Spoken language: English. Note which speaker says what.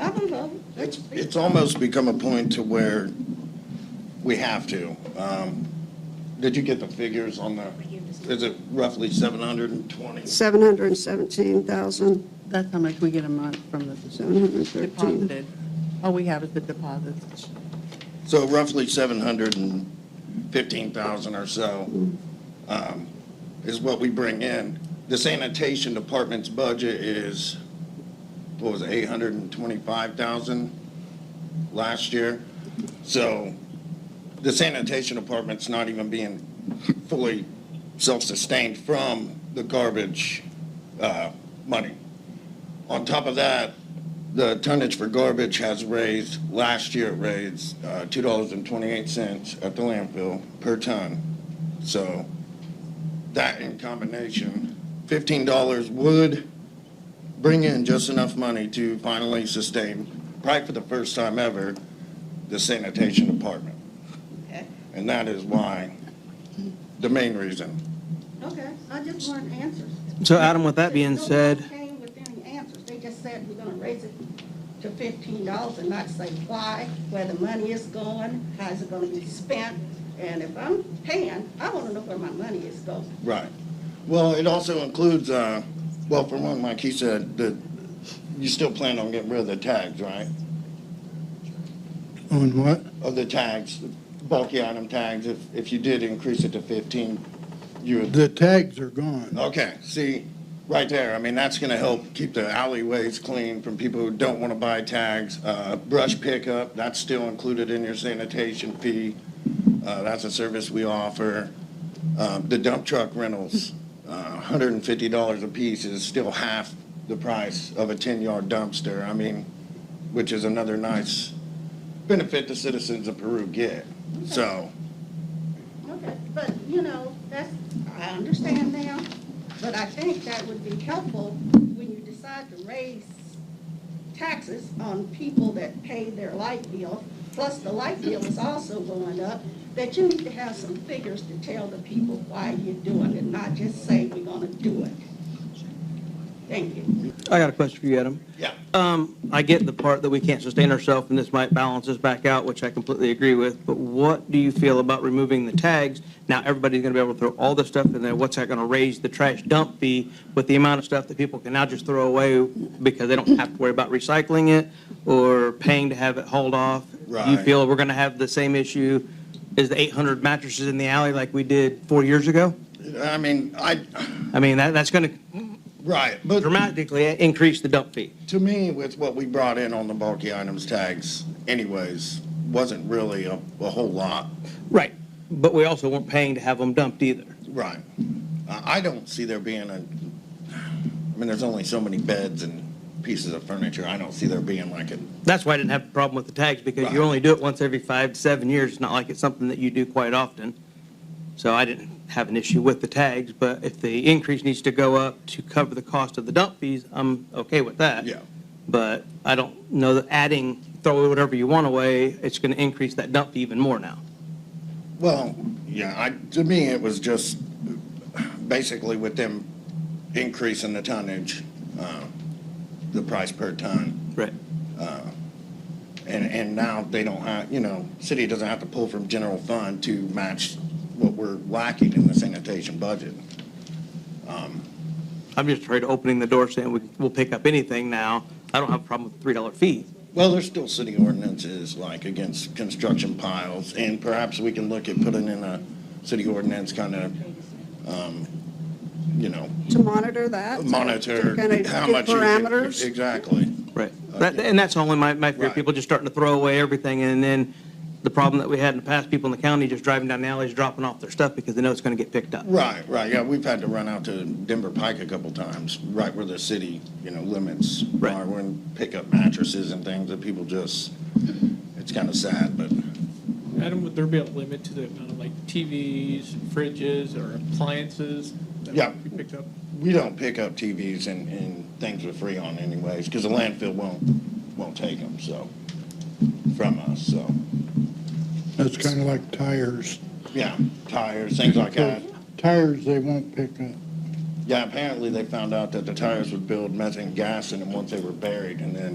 Speaker 1: I don't know.
Speaker 2: It's, it's almost become a point to where we have to. Um, Did you get the figures on the, is it roughly 720?
Speaker 1: 717,000,
Speaker 3: That's how much we get a month from the
Speaker 1: 713.
Speaker 3: deposited. All we have is the deposits.
Speaker 2: So roughly 715,000 or so um, is what we bring in. The sanitation department's budget is, what was it, 825,000 last year? So the sanitation department's not even being fully self-sustained from the garbage uh, money. On top of that, the tonnage for garbage has raised, last year it raised uh, $2.28 at the landfill per ton. So that in combination, $15 would bring in just enough money to finally sustain, probably for the first time ever, the sanitation department.
Speaker 1: Okay,
Speaker 2: And that is why, the main reason.
Speaker 1: okay, I just want answers.
Speaker 4: So Adam, with that being
Speaker 1: Nobody
Speaker 4: said,
Speaker 1: Came with any answers. They just said we're gonna raise it to fifteen dollars and not say why, where the money is going, how's it gonna be spent? And if I'm paying, I wanna know where my money is going.
Speaker 2: Right. Well, it also includes, uh, well, for one, like he said, that you still plan on getting rid of the tags, right?
Speaker 5: On what?
Speaker 2: Of the tags, bulky item tags, if, if you did increase it to fifteen, you would,
Speaker 5: The tags are gone.
Speaker 2: okay, see, right there, I mean, that's gonna help keep the alleyways clean from people who don't wanna buy tags. Uh, brush pickup, that's still included in your sanitation fee, uh, that's a service we offer. Um, the dump truck rentals, uh, hundred and fifty dollars a piece is still half the price of a ten-yard dumpster, I mean, which is another nice benefit the citizens of Peru get, so.
Speaker 1: Okay, but, you know, that's, I understand now, but I think that would be helpful when you decide to raise taxes on people that pay their light bill, plus the light bill is also going up, that you need to have some figures to tell the people why you're doing it, not just say we're gonna do it. Thank you.
Speaker 4: I got a question for you, Adam.
Speaker 2: Yeah.
Speaker 4: Um, I get the part that we can't sustain ourselves and this might balance us back out, which I completely agree with, but what do you feel about removing the tags? Now, everybody's gonna be able to throw all this stuff in there. What's that gonna raise the trash dump fee with the amount of stuff that people can now just throw away because they don't have to worry about recycling it or paying to have it hauled off? Do you
Speaker 2: Right.
Speaker 4: feel we're gonna have the same issue as the eight hundred mattresses in the alley like we did four years ago?
Speaker 2: I mean, I,
Speaker 4: I mean, that, that's gonna
Speaker 2: right, but
Speaker 4: dramatically increase the dump fee.
Speaker 2: to me, with what we brought in on the bulky items tags anyways, wasn't really a, a whole lot.
Speaker 4: Right, but we also weren't paying to have them dumped either.
Speaker 2: Right. I, I don't see there being a, I mean, there's only so many beds and pieces of furniture. I don't see there being like a,
Speaker 4: That's why I didn't have a problem with the tags, because
Speaker 2: Right.
Speaker 4: you only do it once every five to seven years. It's not like it's something that you do quite often. So I didn't have an issue with the tags, but if the increase needs to go up to cover the cost of the dump fees, I'm okay with that.
Speaker 2: Yeah.
Speaker 4: But I don't know that adding, throw whatever you want away, it's going to increase that dump fee even more now.
Speaker 2: well, yeah, I, to me, it was just basically with them increasing the tonnage, uh, the price per ton.
Speaker 4: Right.
Speaker 2: And, and now they don't have, you know, city doesn't have to pull from general fund to match what we're lacking in the sanitation budget.
Speaker 4: I'm just afraid of opening the door saying we- we'll pick up anything now. I don't have a problem with the $3 fee.
Speaker 2: Well, there's still city ordinances like against construction piles, and perhaps we can look at putting in a city ordinance kind of, um, you know,
Speaker 1: To monitor that?
Speaker 2: monitor how much. you- Exactly.
Speaker 4: Right. That- And that's only my, my fear,
Speaker 2: Right.
Speaker 4: people just starting to throw away everything, and then the problem that we had in the past, people in the county just driving down the alleys, dropping off their stuff because they know it's going to get picked up.
Speaker 2: Right, right, yeah, we've had to run out to Denver Pike a couple times, right where the city, you know, limits
Speaker 4: Right.
Speaker 2: are, when pick up mattresses and things that people just, it's kind of sad, but.
Speaker 6: Adam, would there be a limit to the amount of like TVs, fridges, or appliances that
Speaker 2: Yeah.
Speaker 6: would be picked up?
Speaker 2: We don't pick up TVs and, and things for free on anyways, because the landfill won't, won't take them, so, from us, so,
Speaker 5: That's kind of like tires.
Speaker 2: yeah, tires, things like that.
Speaker 5: Tires they won't pick up.
Speaker 2: Yeah, apparently they found out that the tires would build methane gas in them once they were buried, and then